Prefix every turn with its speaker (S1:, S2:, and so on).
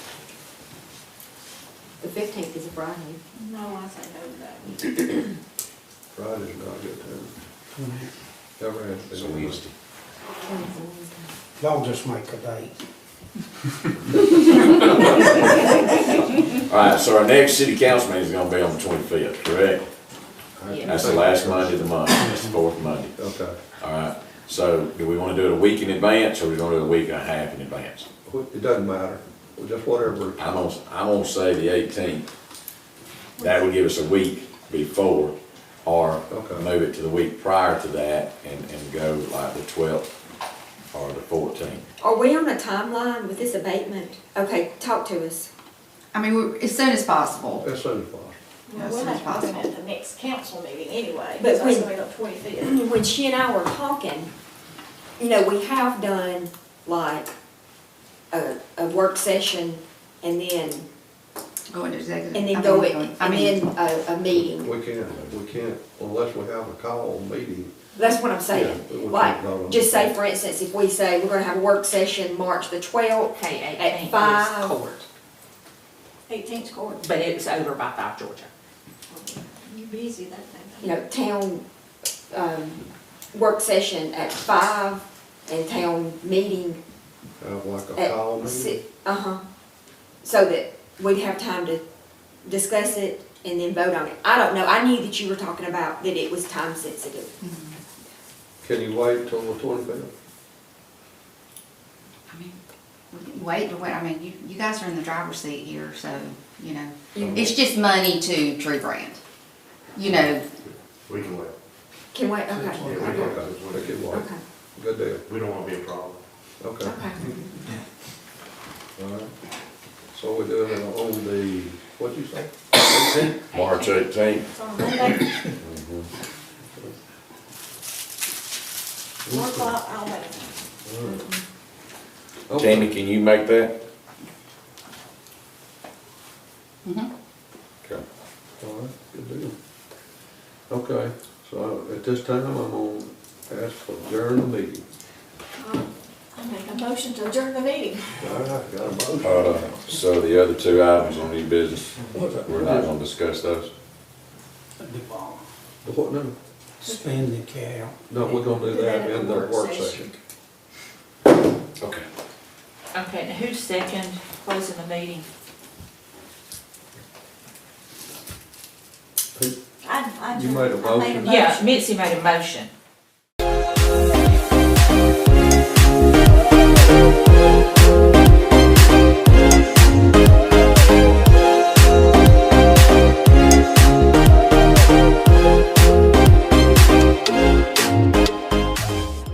S1: fifteenth is a Friday.
S2: No, I say no to that.
S3: Friday's not a good time. Cover it.
S4: It's a Wednesday.
S5: Y'all just make a date.
S4: All right, so our next city council meeting is gonna be on the twenty-fifth, correct?
S3: I
S4: That's the last Monday of the month, that's the fourth Monday.
S3: Okay.
S4: All right, so do we wanna do it a week in advance, or we gonna do it a week and a half in advance?
S3: Well, It doesn't matter, Well, just whatever.
S4: I'm gonna, I'm gonna say the eighteenth. That would give us a week before, or
S3: Okay.
S4: move it to the week prior to that and, and go like the twelfth or the fourteenth.
S1: Are we on a timeline with this abatement? Okay, talk to us.
S6: I mean, we- as soon as possible.
S3: As soon as possible.
S2: Well,
S6: As
S2: we'll
S6: soon as
S2: have to do it
S6: possible.
S2: at the next council meeting anyway,
S1: But
S2: because that's
S1: when-
S2: gonna be on twenty-fifth.
S1: When she and I were talking, you know, we have done like a, a work session and then,
S6: Go into executive.
S1: and
S6: I
S1: then
S6: mean,
S1: go, in-
S6: going- I
S1: and
S6: mean,
S1: then a, a meeting.
S3: We can't, we can't, unless we have a call meeting.
S1: That's what I'm
S3: Yeah, we
S1: saying.
S3: can vote on
S1: Like,
S3: it.
S1: just say, for instance, if we say we're gonna have a work session March the twelfth,
S7: Okay,
S1: At
S7: eighteenth
S1: five.
S7: is court,
S2: Eighteenth court.
S7: but it's over by five Georgia.
S2: You busy that
S1: you
S2: day.
S1: know, town, um, work session at five and town meeting
S3: Have like a call
S1: at
S3: meeting.
S1: six. Uh-huh. So that we'd have time to discuss it and then vote on it. I don't know, I knew that you were talking about that it was time sensitive.
S3: Can you wait till the twenty-fifth?
S6: I mean, we can Wait to wait, I mean, you, you guys are in the driver's seat here, so, you know,
S1: You-
S6: it's just money to Tree Brand. You know,
S8: We can wait.
S1: Can wait,
S8: Yeah, we
S1: okay,
S8: can
S1: okay,
S8: wait.
S3: We can wait.
S1: okay,
S3: Good deal,
S8: We don't want to be a problem.
S3: okay.
S1: okay.
S8: Mm-hmm.
S3: All right. So we're doing it on the, what'd you say?
S4: March eighteenth,
S2: It's on Monday, one o'clock, I'll wait.
S3: Okay.
S4: Tammy, can you make that?
S6: mhm.
S4: Okay.
S3: All right, good deal. Okay, so at this time, I'm gonna ask for adjourn the meeting.
S2: Uh, I make a motion to adjourn the meeting.
S3: All right, got a motion.
S4: Uh, so the other two items on new business,
S3: What's that?
S4: we're not gonna discuss those?
S3: What, no,
S5: Spend the cow.
S3: no, we're gonna do that in the work session.
S4: Okay.
S7: Okay, now who's second closing the meeting?
S2: I, I.
S3: You made a
S2: I made
S3: motion.
S7: Yeah, Mitzi made a motion.